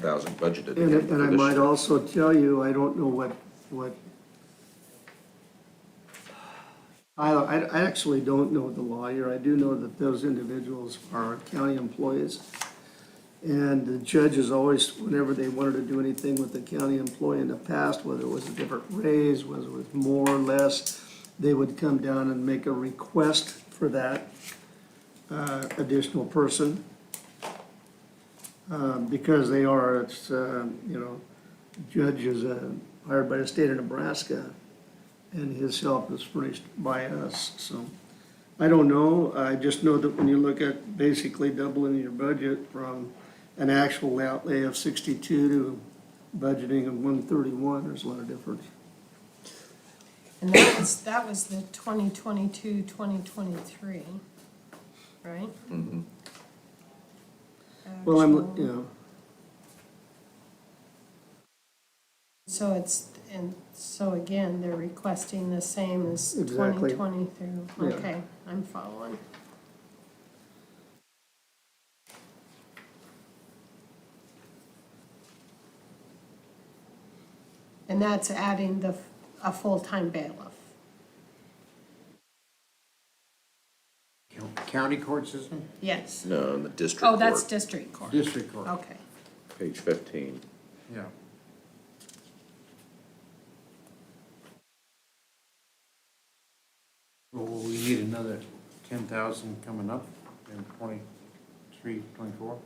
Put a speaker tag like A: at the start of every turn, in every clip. A: thousand budgeted
B: And,
A: again
B: and I
A: for this
B: might
A: year.
B: also tell you, I don't know what, what. I, I I actually don't know the lawyer. I do know that those individuals are county employees. And the judges always, whenever they wanted to do anything with the county employee in the past, whether it was a different raise, whether it was more or less, they would come down and make a request for that, uh, additional person um, because they are, it's, um, you know, judge is uh, hired by the state of Nebraska, and his help is furnished by us, so. I don't know, I just know that when you look at basically doubling your budget from an actual outlay of sixty-two to budgeting of one thirty-one, there's a lot of difference.
C: And that was, that was the 2022, 2023, right?
B: Well, I'm,
C: Actual-
B: you know,
C: So it's, and so again, they're requesting the same as
B: Exactly.
C: 2020
B: Yeah.
C: through, okay, I'm following. And that's adding the, f- a full-time bailiff.
D: County court system,
C: Yes.
A: No, in the district
C: Oh, that's
A: court,
C: district court.
D: district court,
C: Okay.
A: page fifteen.
D: yeah. Well, will we need another ten thousand coming up in twenty-three, twenty-four?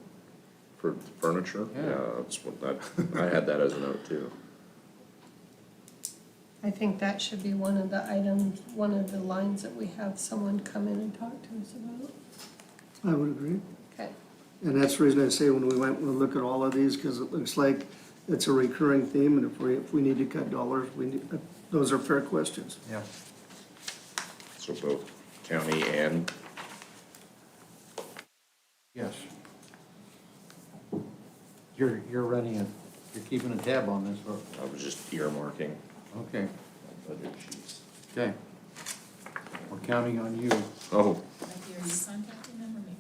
A: For furniture,
D: Yeah.
A: yeah, that's what, that, I had that as a note too.
C: I think that should be one of the items, one of the lines that we have someone come in and talk to us about.
B: I would agree.
C: Okay,
B: And that's the reason I say when we went, we'll look at all of these, because it looks like it's a recurring theme, and if we, if we need to cut dollars, we need, uh, those are fair questions.
D: Yeah.
A: So both county and,
D: Yes. You're, you're running it, you're keeping a tab on this, but,
A: I was just earmarking
D: okay,
A: my budget sheets.
D: okay. We're counting on you.
A: Oh,
E: Are you contacting them or me?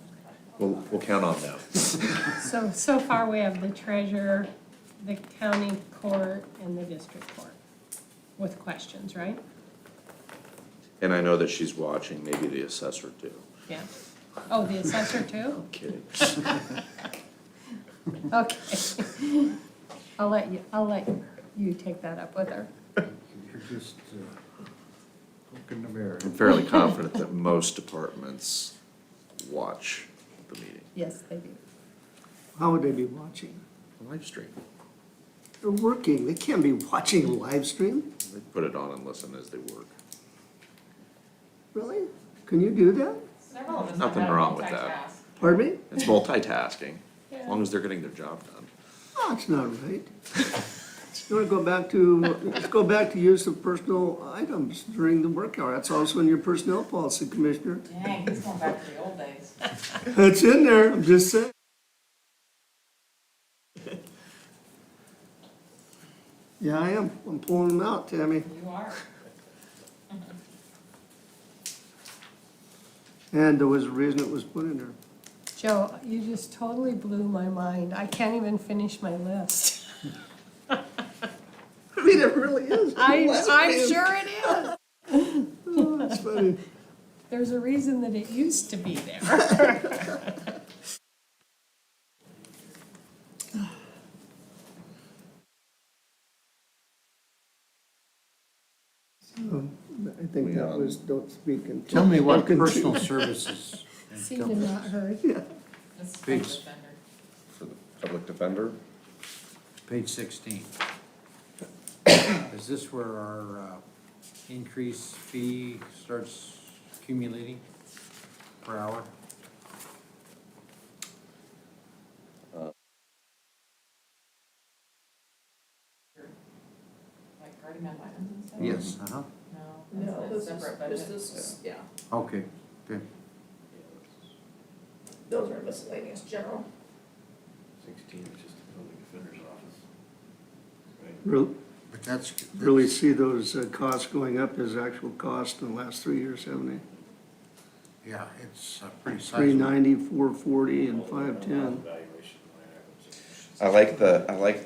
A: we'll, we'll count on that.
C: so, so far we have the treasurer, the county court, and the district court with questions, right?
A: And I know that she's watching, maybe the assessor too.
C: Yeah. Oh, the assessor too?
A: Kidding.
C: Okay. I'll let you, I'll let you take that up with her.
D: You're just, uh, poking the bear.
A: I'm fairly confident that most departments watch the meeting.
C: Yes, they do.
B: How would they be watching?
A: Live stream,
B: They're working, they can't be watching live stream,
A: they put it on and listen as they work.
B: really? Can you do that?
E: Several of us
A: Nothing
E: have
A: wrong with
E: multitask
A: that.
E: tasks.
B: Pardon me?
A: It's multitasking, as long as they're getting their job done.
B: Oh, it's not right. You wanna go back to, let's go back to use of personal items during the work hour, that's also in your personnel policy, Commissioner.
E: Dang, he's going back to the old days.
B: That's in there, I'm just saying. Yeah, I am, I'm pulling them out, Tammy.
E: You are.
B: And there was a reason it was put in there.
C: Joe, you just totally blew my mind. I can't even finish my list.
B: I mean, it really is.
C: I,
B: That's
C: I'm
B: funny.
C: sure it is.
B: Oh, That's funny.
C: There's a reason that it used to be there.
B: I think that was, don't speak until.
D: Tell me what
B: spoken to.
D: personal services. and
C: Seemed to not hurt.
E: This is
D: Peace.
E: public defender.
A: For the public defender,
D: Page sixteen. Is this where our uh, increase fee starts accumulating per hour?
E: Like guardian ad litem and stuff?
D: Uh-huh,
E: No, that's a separate budget.
F: This is, yeah,
D: okay, good.
F: those are miscellaneous general.
G: Sixteen is just the building defender's office. Right?
B: Re-
D: But that's,
B: Really see those uh, costs going up as actual cost in the last three years, haven't they?
D: yeah, it's uh, pretty
B: Three
D: sizable.
B: ninety, four forty, and five ten.
G: Valuation line items.
A: I like the, I like